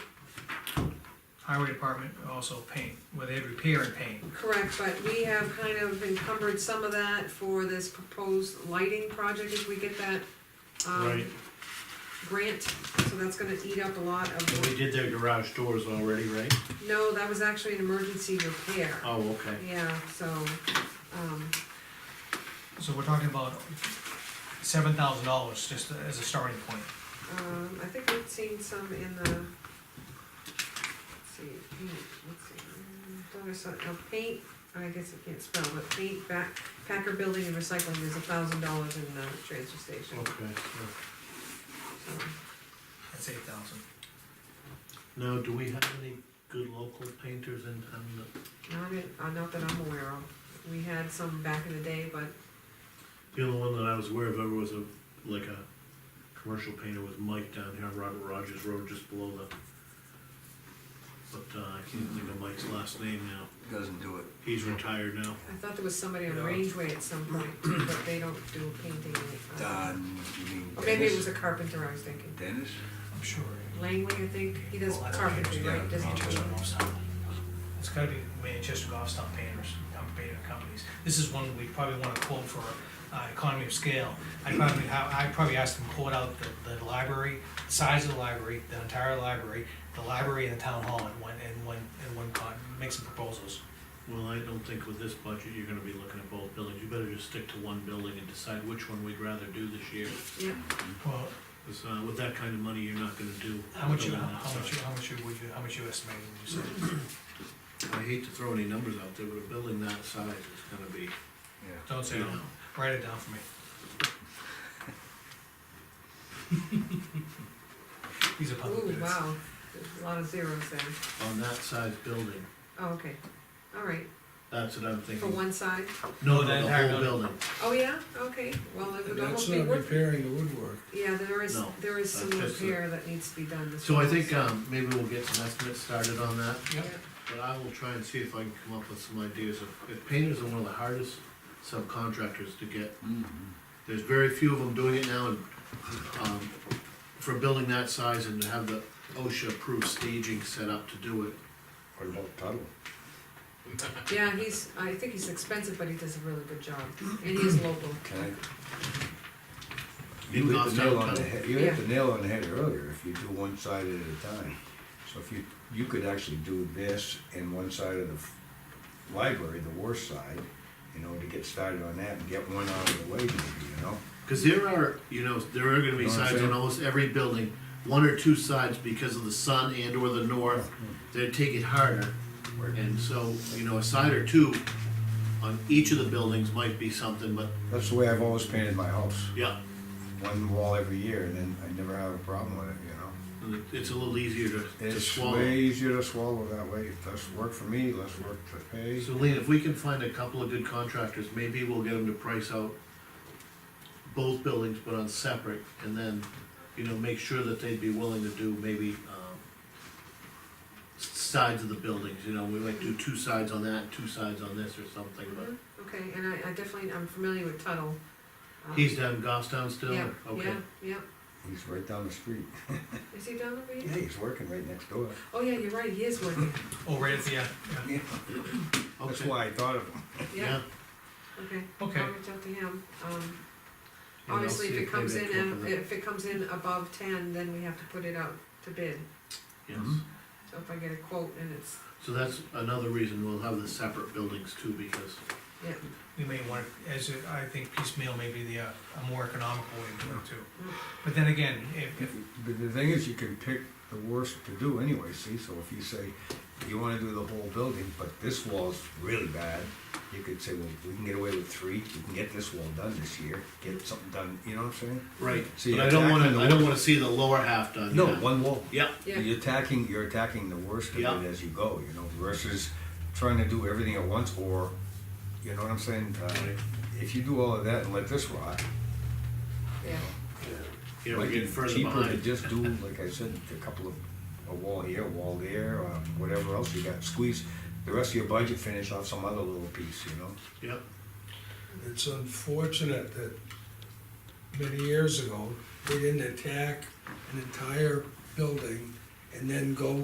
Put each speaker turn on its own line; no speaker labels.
highway department also paint, where they repair and paint.
Correct, but we have kind of encumbered some of that for this proposed lighting project if we get that, um,
Right.
grant, so that's gonna eat up a lot
And
of,
We did their garage doors already, right?
no, that was actually an emergency repair.
Oh, okay.
Yeah, so, um,
So we're talking about seven thousand dollars just as a starting point.
um, I think we've seen some in the, let's see, paint, let's see, um, thought I saw, no, paint, I guess I can't spell, but paint, back, Packer Building and Recycling is a thousand dollars in the transfer station,
Okay.
so.
That's eight thousand.
Now, do we have any good local painters in town that,
Not, that- uh, not that I'm aware of. We had some back in the day, but,
the only one that I was aware of ever was a, like a commercial painter was Mike down here on Robert Rogers Road, just below the. But, uh, I can't think of Mike's last name now.
doesn't do it.
He's retired now.
I thought there was somebody on
Yeah.
Rangeway at some point too, but they don't do painting. uh,
Don, you mean
Or maybe it was
Dennis?
a carpenter I was thinking.
Dennis?
I'm sure.
Langley, I think, he does
Well, I don't
carpentry,
think-
right? Doesn't he?
Manchester Goffstown. It's gotta be Manchester Goffstown painters, um, painter companies. This is one we probably wanna quote for, uh, economy of scale. I probably have, I probably asked them to quote out the, the library, size of the library, the entire library, the library and the town hall in one, in one, in one con, make some proposals.
Well, I don't think with this budget, you're gonna be looking at both buildings. You better just stick to one building and decide which one we'd rather do this year.
Yeah,
Well,
Because uh, with that kind of money, you're not gonna do.
how much you,
building that
how much you,
size.
how much you, would you, how much you estimate would you say?
I hate to throw any numbers out there, but a building that size is gonna be,
Yeah.
Don't say
you
it,
know,
write it down for me. These are public
ooh,
bids.
wow, there's a lot of zeros there.
on that size building,
Oh, okay, all right,
that's what I'm
for
thinking.
one side.
No,
For the
no, the
entire
whole
building.
building.
Oh, yeah, okay, well, it
And
would
That's
almost be
not
worth,
repairing the woodwork.
yeah, there is,
No,
there is some
that's just a-
repair that needs to be done this
So I
fall,
think, um, maybe we'll get some estimates started on that,
Yep.
Yeah.
but I will try and see if I can come up with some ideas of, if painters are one of the hardest subcontractors to get.
Mhm.
There's very few of them doing it now, and, um, for a building that size and to have the OSHA-approved staging set up to do it,
What about Tuttle?
Yeah, he's, I think he's expensive, but he does a really good job, and he is local.
Can I?
Even
You hit
off
the nail on
downtown.
the head, you hit
Yeah.
the nail on the head earlier, if you do one side at a time. So if you, you could actually do this and one side of the f- library, the worst side, you know, to get started on that and get one out of the way maybe, you know?
Cause there are, you know, there are gonna be
Know what I'm
sides on
saying?
almost every building, one or two sides because of the sun and or the north,
Mm-hmm.
they take it harder. And so, you know, a side or two on each of the buildings might be something, but,
That's the way I've always painted my house,
yeah,
one wall every year, and then I never have a problem with it, you know?
it's a little easier to, to
It's
swallow.
way easier to swallow that way, It less work for me, less work to pay.
So Lean, if we can find a couple of good contractors, maybe we'll get them to price out both buildings, but on separate, and then, you know, make sure that they'd be willing to do maybe, um, s- sides of the buildings, you know, we might do two sides on that, two sides on this or something,
Uh-huh.
but
Mm-hmm. Okay, and I, I definitely, I'm familiar with Tuttle. Um,
he's down in Goffstown still,
Yeah,
or- okay.
yeah, yeah,
He's right down the street.
is he down over
Yeah,
here?
he's working right next door.
Oh, yeah, you're right, he is working,
Oh, right at the, yeah, yeah.
That's
Okay.
why I thought of him.
yeah,
Yeah.
okay.
Okay.
I'll reach out to him, um,
And I'll
obviously if
see
it comes
maybe I
in,
can
and-
look at
if it comes in above ten, then we have to put it out to bid.
that. Yes,
Mhm.
So if I get a quote and it's,
so that's another reason we'll have the separate buildings too, because
yeah,
We may want, as, a- I think piecemeal may be the, uh, a more economical way to do it too.
Mm.
But then again, if, if,
But the thing is, you can pick the worst to do anyway, see, so if you say, you wanna do the whole building, but this wall's really bad, you could say, well, we can get away with three, we can get this wall done this year, get something done, you know what I'm saying?
Right,
See,
but I don't
attacking
wanna,
the
I don't
wall-
wanna see the lower half done.
No,
yeah.
one wall.
Yeah,
yeah,
You're attacking, you're attacking the worst of it
Yeah.
as you go, you know, versus trying to do everything at once, or, you know what I'm saying? Uh,
Right.
If you do all of that and let this rot,
yeah,
yeah, we're
might be
getting further
cheaper to
behind.
just do, like I said, a couple of, a wall here, a wall there, or whatever else you got, squeeze the rest of your budget, finish off some other little piece, you know?
Yep.
It's unfortunate that many years ago, we didn't attack an entire building and then go